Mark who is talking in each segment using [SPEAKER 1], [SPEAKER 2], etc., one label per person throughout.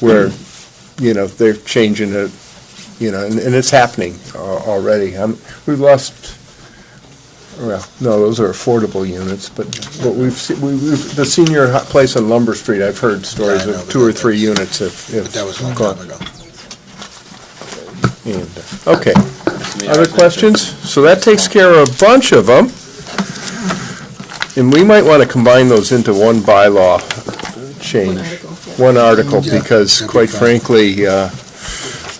[SPEAKER 1] where, you know, they're changing it, you know, and, and it's happening al- already. Um, We've lost, well, no, those are affordable units, but what we've, se- we- we've, the senior hu- place on Lumber Street, I've heard stories
[SPEAKER 2] Yeah, I know,
[SPEAKER 1] of
[SPEAKER 2] but
[SPEAKER 1] two or
[SPEAKER 2] that-
[SPEAKER 1] three units have,
[SPEAKER 2] But that was a
[SPEAKER 1] have
[SPEAKER 2] long time
[SPEAKER 1] gone.
[SPEAKER 2] ago.
[SPEAKER 1] And, uh, Okay. Other questions? So that takes care of a bunch of them. And we might want to combine those into one bylaw change. One article,
[SPEAKER 2] Yeah,
[SPEAKER 1] because
[SPEAKER 2] that'd be
[SPEAKER 1] quite
[SPEAKER 2] fine.
[SPEAKER 1] frankly, uh,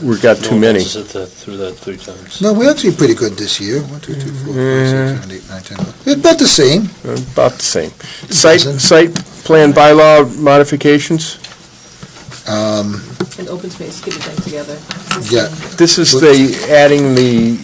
[SPEAKER 1] we've got too many.
[SPEAKER 3] Through that three times.
[SPEAKER 2] No, we're actually pretty good this year. One, two, three, four, five, six, seven, eight, nine, ten. eleven. It's about the same.
[SPEAKER 1] About the same. Site,
[SPEAKER 2] doesn't.
[SPEAKER 1] site plan bylaw modifications?
[SPEAKER 2] Um,
[SPEAKER 4] And open space, get it done together.
[SPEAKER 2] Yeah.
[SPEAKER 1] This is the, adding the,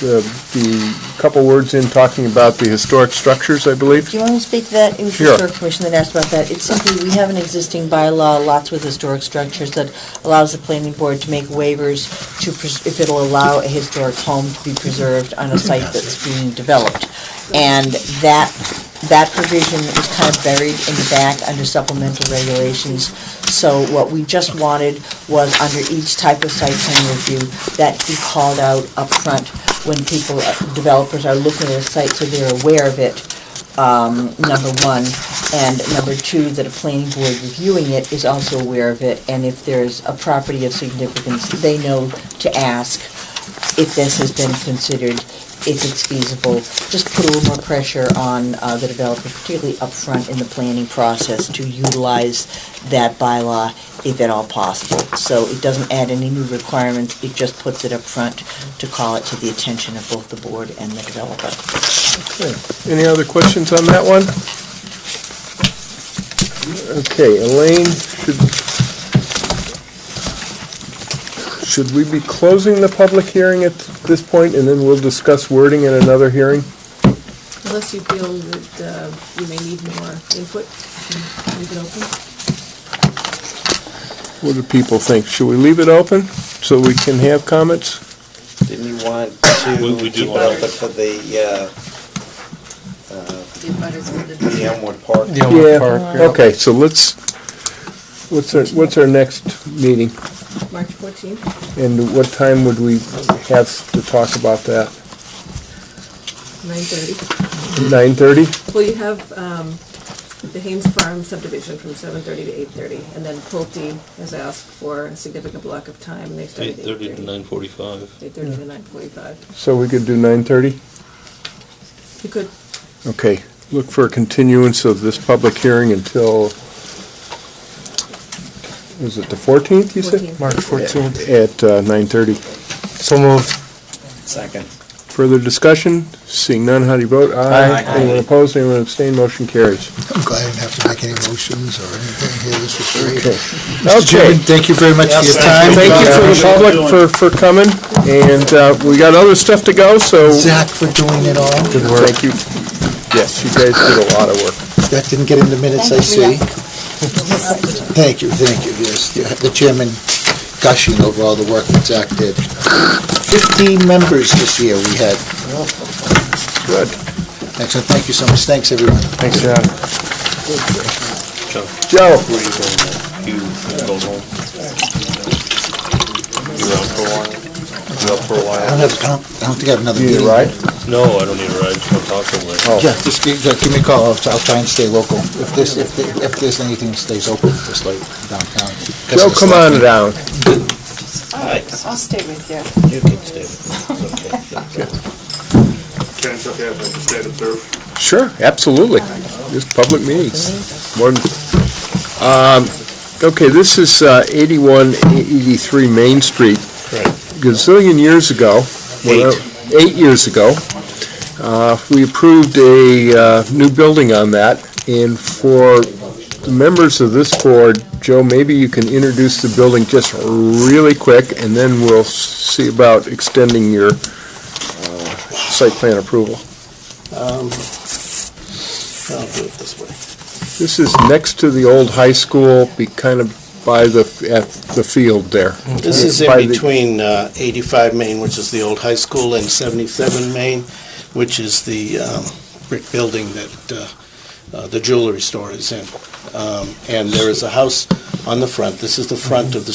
[SPEAKER 1] the, the couple words in talking about the historic structures, I believe?
[SPEAKER 5] Do you want me to speak to that? It was the
[SPEAKER 1] Sure.
[SPEAKER 5] historic commission that asked about that. It's simply, we have an existing bylaw, lots with historic structures, that allows the planning board to make waivers to, pres- if it'll allow a historic home to be preserved on a site that's being developed. And that, that provision is kind of buried in the back under supplemental regulations. So what we just wanted was under each type of site plan review, that be called out up front when people, developers are looking at a site so they're aware of it um, number one, and number two, that a planning board reviewing it is also aware of it, and if there's a property of significance, they know to ask if this has been considered, if it's feasible. Just put a little more pressure on uh, the developer, particularly upfront in the planning process, to utilize that bylaw if at all possible. So it doesn't add any new requirements, it just puts it upfront to call it to the attention of both the board and the developer.
[SPEAKER 1] Any other questions on that one? Okay, Elaine, should, should we be closing the public hearing at this point, and then we'll discuss wording in another hearing?
[SPEAKER 4] Unless you feel that uh, you may need more input, you can leave it open.
[SPEAKER 1] What do people think? Should we leave it open so we can have comments?
[SPEAKER 6] Didn't you want
[SPEAKER 3] We- we
[SPEAKER 6] to
[SPEAKER 3] do
[SPEAKER 6] keep it
[SPEAKER 3] want-
[SPEAKER 6] open for the, uh, uh, the Elmwood Park?
[SPEAKER 1] Yeah, okay, so let's, what's our, what's our next meeting?
[SPEAKER 4] March 14th,
[SPEAKER 1] And what time would we have to talk about that?
[SPEAKER 4] 9:30.
[SPEAKER 1] Nine thirty?
[SPEAKER 4] Well, you have um, the Haynes Farm subdivision from 7:30 to 8:30, and then Pulte has asked for a significant block of time, and they
[SPEAKER 3] Eight
[SPEAKER 4] started at
[SPEAKER 3] thirty to
[SPEAKER 4] 8:30.
[SPEAKER 3] nine forty-five.
[SPEAKER 4] 8:30 to 9:45.
[SPEAKER 1] So we could do nine thirty?
[SPEAKER 4] You could,
[SPEAKER 1] Okay, look for a continuance of this public hearing until, was it the fourteenth, you said?
[SPEAKER 4] 14th.
[SPEAKER 7] March 14th.
[SPEAKER 1] At uh, nine thirty.
[SPEAKER 7] So moved.
[SPEAKER 6] Second.
[SPEAKER 1] Further discussion? Seeing none, how do you vote? Aye.
[SPEAKER 6] Aye.
[SPEAKER 1] Anyone opposed, anyone abstained, motion carries.
[SPEAKER 2] I'm glad I didn't have to make any motions or anything here. This was great.
[SPEAKER 1] Okay.
[SPEAKER 2] Mr. Chairman, thank you very much for your time.
[SPEAKER 1] Thank you for the public for, for coming, and uh, we got other stuff to go, so
[SPEAKER 2] Zach for doing it all.
[SPEAKER 7] Good work.
[SPEAKER 1] thank you. Yes, you guys did a lot of work.
[SPEAKER 2] That didn't get in the minutes, I see. Thank you, thank you, yes. You have The chairman gushing over all the work that Zach did. Fifteen members this year we had.
[SPEAKER 1] Good.
[SPEAKER 2] Excellent, thank you so much. Thanks, everyone.
[SPEAKER 7] Thanks, John.
[SPEAKER 1] Joe?
[SPEAKER 3] You go home. You're out for a while? You're out for a
[SPEAKER 2] I don't
[SPEAKER 3] while?
[SPEAKER 2] have, I don't, I don't think I have another
[SPEAKER 1] You
[SPEAKER 2] meeting.
[SPEAKER 1] need a ride?
[SPEAKER 3] No, I don't need a ride, just want to talk to Larry.
[SPEAKER 2] Yeah, just give, yeah, give me a call, Oh. I'll, I'll try and stay local. If this, if, the- if there's anything that stays open, just like downtown.
[SPEAKER 1] Joe, come on down.
[SPEAKER 5] I'll stay with you.
[SPEAKER 6] You can stay. It's okay.
[SPEAKER 8] Ken, it's okay if I just stay to serve.
[SPEAKER 1] Sure, absolutely. Just public meetings. More than- um, Okay, this is uh, 81, 83 Main Street. Gazillion years ago. when I- Eight years ago. uh, We approved a uh, new building on that, and for the members of this board, Joe, maybe you can introduce the building just really quick, and then we'll see about extending your uh, site plan approval. This is next to the old high school, be kind of by the, at the field there.
[SPEAKER 6] This is
[SPEAKER 1] By the-
[SPEAKER 6] in between uh, 85 Main, which is the old high school, and 77 Main, which is the um, brick building that uh, uh, the jewelry store is in. Um, And there is a house on the front, this is the front of the